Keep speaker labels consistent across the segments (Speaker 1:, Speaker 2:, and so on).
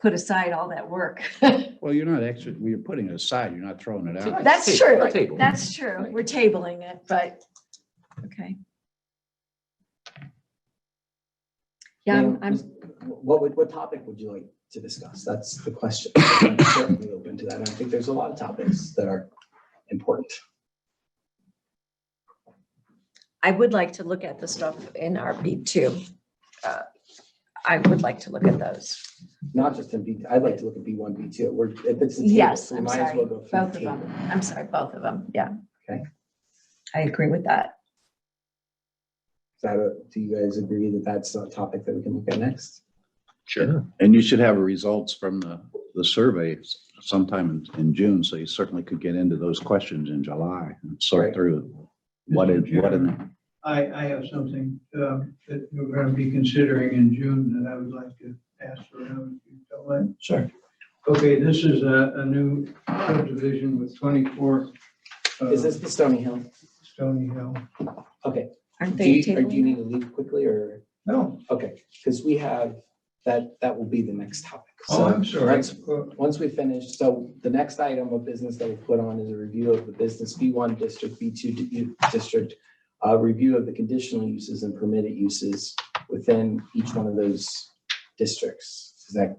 Speaker 1: put aside all that work.
Speaker 2: Well, you're not actually, we are putting it aside. You're not throwing it out.
Speaker 1: That's
Speaker 3: Table,
Speaker 1: true.
Speaker 3: table.
Speaker 1: That's true. We're tabling it, but, okay. Yeah, I'm- I'm,
Speaker 4: What would, what topic would you like to discuss? That's the question. I'm Certainly open to that. I think there's a lot of topics that are important.
Speaker 5: I would like to look at the stuff in RB two. Uh, I would like to look at those.
Speaker 4: Not just in B, I'd like to look at B one, B two. We're, if it's. a table,
Speaker 5: Yes,
Speaker 4: we
Speaker 1: I'm
Speaker 4: might as
Speaker 1: sorry.
Speaker 4: well go through the
Speaker 1: Both of
Speaker 4: table.
Speaker 1: them. I'm sorry, both of them. Yeah.
Speaker 4: Okay.
Speaker 5: I agree with that.
Speaker 4: Is that a, do you guys agree that that's a topic that we can look at next?
Speaker 2: Sure. And you should have results from the, the survey sometime in, in June, so you certainly could get into those questions in July and sort
Speaker 4: Right.
Speaker 2: through what is, what in.
Speaker 6: I, I have something um, that we're going to be considering in June that I would like to ask for him if you don't mind.
Speaker 4: Sure.
Speaker 6: Okay, this is a, a new subdivision with 24 uh,
Speaker 4: Is this the Stony Hill?
Speaker 6: Stony Hill.
Speaker 4: Okay.
Speaker 5: Aren't
Speaker 4: Do
Speaker 5: they
Speaker 4: you, or do you
Speaker 5: tabling?
Speaker 4: need to leave quickly or,
Speaker 6: No,
Speaker 4: okay, because we have, that, that will be the next topic.
Speaker 6: oh,
Speaker 4: So
Speaker 6: I'm sorry.
Speaker 4: let's- Once we finish, so the next item of business that we put on is a review of the business B1 district, B2 di- district, a review of the conditional uses and permitted uses within each one of those districts. Is that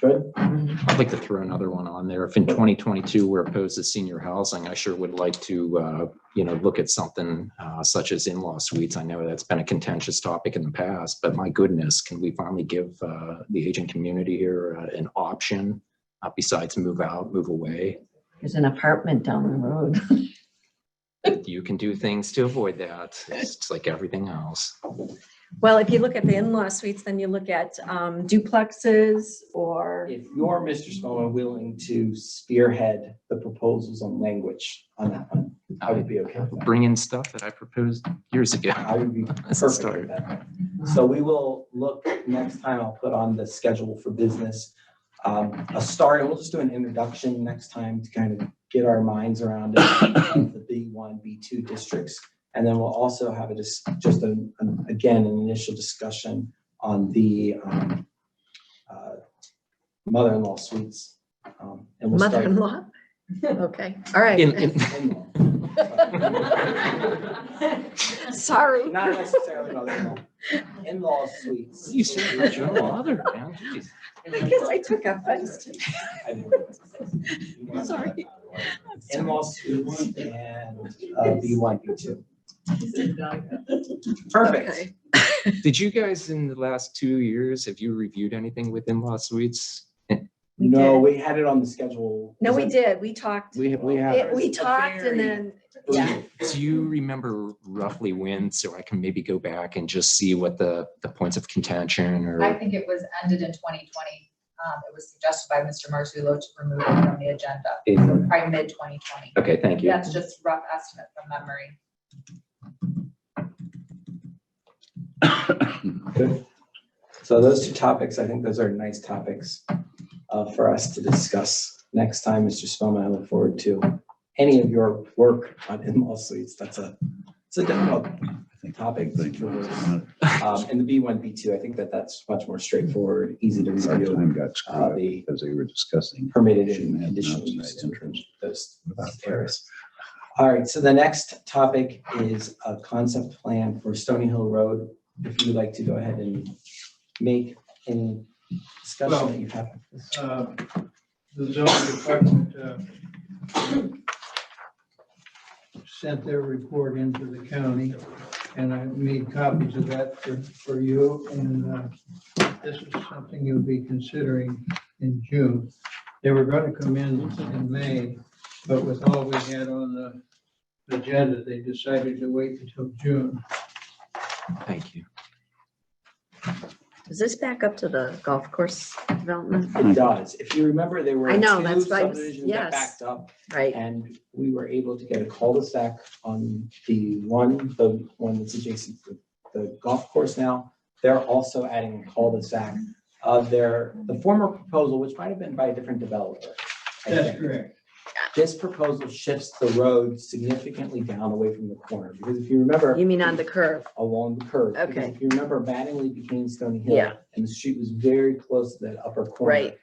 Speaker 4: good?
Speaker 3: I'd like to throw another one on there. If in twenty twenty-two, we're opposed to senior housing, I sure would like to, uh, you know, look at something, uh, such as in-law suites. I know that's been a contentious topic in the past, but my goodness, can we finally give, uh, the aging community here uh, an option? Uh, besides move out, move away.
Speaker 1: There's an apartment down the road.
Speaker 3: You can do things to avoid that. It's like everything else.
Speaker 5: Well, if you look at the in-law suites, then you look at um, duplexes or,
Speaker 4: If you're Mr. Smallman willing to spearhead the proposals on language on that one, I would be okay with that.
Speaker 3: Bring in stuff that I proposed years ago.
Speaker 4: I would be
Speaker 3: That's a
Speaker 4: perfect
Speaker 3: start.
Speaker 4: with that. So we will look, next time I'll put on the schedule for business, um, a start, and we'll just do an introduction next time to kind of get our minds around it, of the B one, B two districts. And then we'll also have a, dis- just a, an- again, an initial discussion on the, um, uh, mother-in-law suites. Um, And we'll start.
Speaker 5: Mother-in-law? Okay, all right.
Speaker 3: In, in,
Speaker 5: Sorry.
Speaker 4: Not necessarily mother-in-law, in-law suites.
Speaker 3: you said you're your mother, man. Jeez.
Speaker 5: I guess I took offense to.
Speaker 4: I didn't realize.
Speaker 5: Sorry.
Speaker 4: In-law suites and uh, B one, B two. Perfect.
Speaker 5: Okay.
Speaker 3: Did you guys in the last two years, have you reviewed anything with in-law suites?
Speaker 5: We
Speaker 4: No,
Speaker 5: did.
Speaker 4: we had it on the schedule.
Speaker 5: No, we did. We talked.
Speaker 2: We have, we have,
Speaker 5: It- We talked and then, yeah.
Speaker 3: Do you remember roughly when, so I can maybe go back and just see what the, the points of contention
Speaker 7: I
Speaker 3: or?
Speaker 7: think it was ended in twenty twenty. Um, it was suggested by Mr. Marzullo to remove it from the agenda,
Speaker 3: in-
Speaker 7: probably mid twenty twenty.
Speaker 3: Okay, thank you.
Speaker 7: That's just rough estimate from memory.
Speaker 4: So those two topics, I think those are nice topics uh, for us to discuss next time, Mr. Spellman. I look forward to any of your work on in-law suites. That's a, it's a difficult topic. Um, And the B one, B two, I think that that's much more straightforward, easy to
Speaker 2: Our
Speaker 4: review.
Speaker 2: time got screwed
Speaker 4: Uh,
Speaker 2: up
Speaker 4: the
Speaker 2: because they were discussing.
Speaker 4: permitted
Speaker 2: Shouldn't
Speaker 4: and
Speaker 2: have
Speaker 4: conditional
Speaker 2: outside
Speaker 4: use
Speaker 2: entrance.
Speaker 4: those
Speaker 2: Without
Speaker 4: areas. All right, so the next topic is a concept plan for Stony Hill Road. If you'd like to go ahead and make any
Speaker 6: Well-
Speaker 4: discussion that you have.
Speaker 6: uh, the zoning department uh, sent their report into the county, and I made copies of that for, for you, and uh, this is something you'll be considering in June. They were gonna come in in May, but with all we had on the agenda, they decided to wait until June.
Speaker 3: Thank you.
Speaker 5: Is this back up to the golf course development?
Speaker 4: It does. If you remember, there were
Speaker 5: I
Speaker 4: two
Speaker 5: know, that's why I was-
Speaker 4: subdivisions
Speaker 5: yes.
Speaker 4: that backed up.
Speaker 5: Right.
Speaker 4: And we were able to get a cul-de-sac on the one, the one that's adjacent to the golf course now. They're also adding a cul-de-sac Uh, of their, the former proposal, which might have been by a different developer. I
Speaker 6: That's
Speaker 4: think.
Speaker 6: correct.
Speaker 4: This proposal shifts the road significantly down away from the corner, because if you remember.
Speaker 5: You mean on the curve?
Speaker 4: along the curve. because
Speaker 5: Okay.
Speaker 4: If you remember, Mattingly became Stony Hill.
Speaker 5: Yeah.
Speaker 4: And the street was very close to that upper corner.
Speaker 5: Right.